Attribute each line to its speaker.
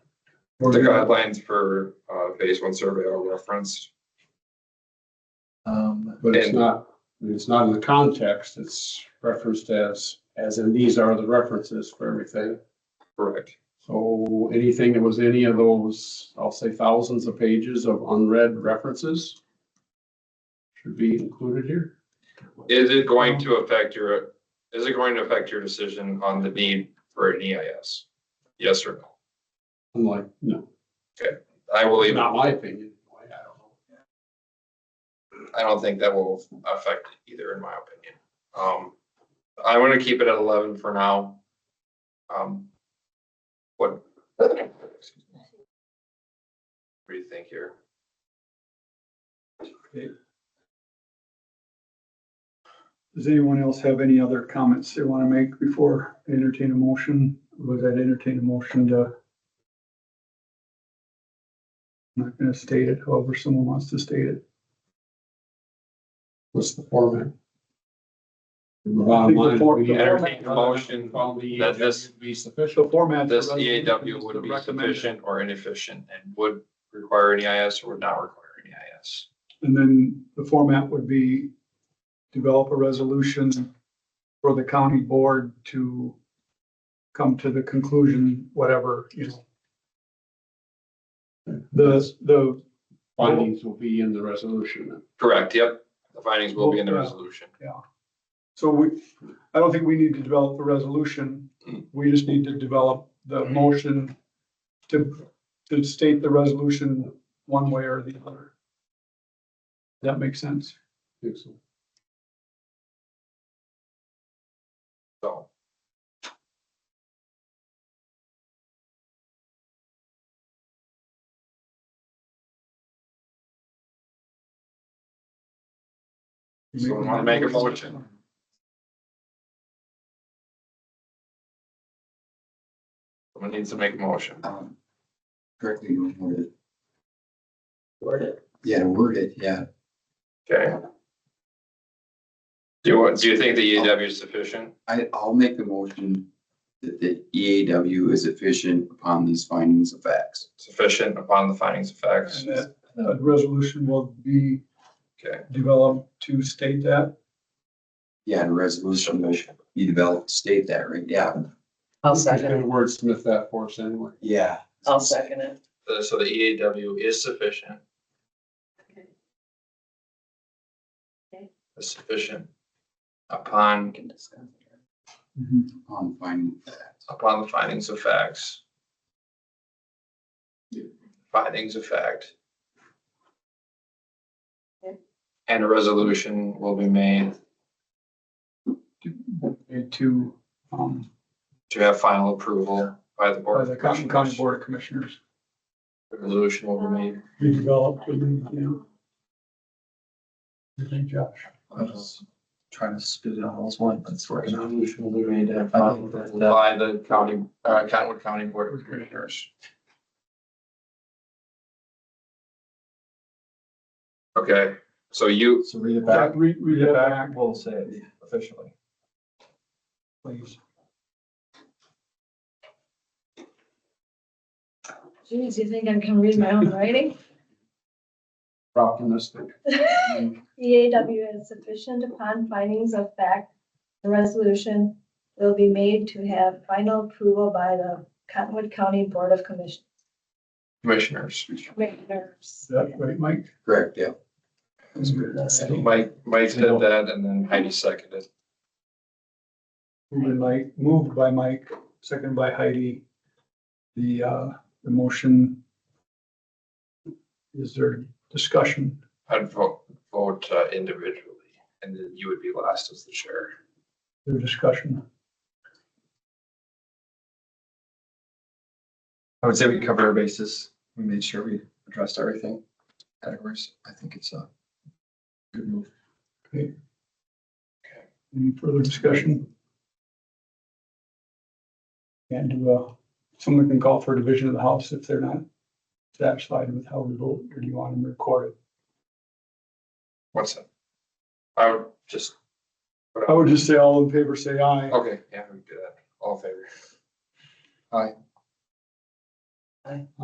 Speaker 1: The guidelines for uh phase one survey are referenced.
Speaker 2: Um,
Speaker 3: But it's
Speaker 1: And-
Speaker 3: not, it's not in the context, it's referenced as, as in these are the references for everything.
Speaker 1: Correct.
Speaker 3: So anything that was any of those, I'll say thousands of pages of unread references should be included here.
Speaker 1: Is it going to affect your, is it going to affect your decision on the need for an EIS? Yes or no?
Speaker 3: I'm like, no,
Speaker 1: I will leave,
Speaker 3: not my opinion. I don't know.
Speaker 1: I don't think that will affect either, in my opinion. Um, I want to keep it at eleven for now. Um, what? What do you think here?
Speaker 4: Does anyone else have any other comments they want to make before I entertain a motion? Was that entertain a motion to? I'm not going to state it however someone wants to state it.
Speaker 3: What's the format? The
Speaker 4: I
Speaker 3: bottom
Speaker 4: think the
Speaker 3: line,
Speaker 4: for-
Speaker 3: we
Speaker 4: the
Speaker 1: entertain a motion
Speaker 3: found the
Speaker 1: that this-
Speaker 3: EAW Be sufficient.
Speaker 4: format.
Speaker 1: This EAW E would be sufficient or inefficient and would require an EIS or would not require an E EIS.
Speaker 4: And then the format would be develop a resolution for the county board to come to the conclusion, whatever, you know. The, the,
Speaker 3: Findings will be in the resolution.
Speaker 1: Correct, yep. The findings will be in the
Speaker 4: Yeah.
Speaker 1: resolution.
Speaker 4: so we, I don't think we need to develop the resolution. We just need to develop the
Speaker 1: Mm-hmm.
Speaker 4: motion to, to state the resolution one way or the other. That makes sense.
Speaker 3: Think so.
Speaker 1: So. Someone wanna make a motion? Someone needs to make a motion.
Speaker 5: um, correctly worded.
Speaker 6: Word it.
Speaker 5: Yeah, worded, yeah.
Speaker 1: Okay. Do you want, do you think the EAW is sufficient?
Speaker 5: I, I'll make the motion that the EAW is efficient upon these findings of facts.
Speaker 1: Sufficient upon the findings of facts?
Speaker 4: And that, uh, resolution will be
Speaker 1: Okay,
Speaker 4: developed to state that.
Speaker 5: Yeah, and a resolution will be developed, to state that, right? Yeah,
Speaker 3: Gonna
Speaker 6: I'll second it.
Speaker 3: Wordsmith that for us anyway.
Speaker 5: yeah.
Speaker 6: I'll second it.
Speaker 1: The- so the EAW is sufficient. Is Sufficient
Speaker 6: We
Speaker 1: upon,
Speaker 6: can discuss it.
Speaker 4: Mm-hmm.
Speaker 5: On finding of facts.
Speaker 1: upon the findings of facts. Findings of fact.
Speaker 6: Okay.
Speaker 1: And a resolution will be made
Speaker 4: And to, um,
Speaker 1: to have final approval by the board.
Speaker 4: by
Speaker 1: of
Speaker 4: the County County
Speaker 1: Commissioners.
Speaker 4: Board of Commissioners.
Speaker 1: Resolution will be made.
Speaker 4: Be developed, you know. Thank Josh.
Speaker 7: trying to spit it out all at once, but it's working out.
Speaker 1: Resolution will be made to have
Speaker 7: I
Speaker 1: final
Speaker 7: think
Speaker 1: approval
Speaker 7: that-
Speaker 1: by the county, uh, Cottonwood County Board of Commissioners. Okay, so you,
Speaker 7: So read it
Speaker 4: Yeah,
Speaker 7: back.
Speaker 4: read, read it back,
Speaker 7: We'll say it officially.
Speaker 4: please.
Speaker 6: Geez, you think I can read my own writing?
Speaker 3: Optimistic.
Speaker 8: EAW is sufficient upon findings of fact. The resolution will be made to have final approval by the Cottonwood County Board of Commission-
Speaker 1: commissioners,
Speaker 8: Commissioners.
Speaker 4: Is that right, Mike?
Speaker 5: Correct, yeah.
Speaker 4: That's good.
Speaker 1: Mike, Mike said that and then Heidi seconded.
Speaker 4: Moved by Mike, moved by Mike, second by Heidi. The, uh, the motion. Is there discussion?
Speaker 1: I'd vote, vote uh, individually and then you would be last as the chair.
Speaker 4: Is There discussion?
Speaker 7: I would say we covered our bases. We made sure we addressed everything. Categories. I think it's uh, a good move.
Speaker 4: Any further discussion? And, uh, someone can call for a division of the house if they're not satisfied with how we vote, or do you want them recorded?
Speaker 1: What's that? I would just,
Speaker 4: I would just say all in favor, say aye.
Speaker 1: okay, yeah, we can do that. All in favor.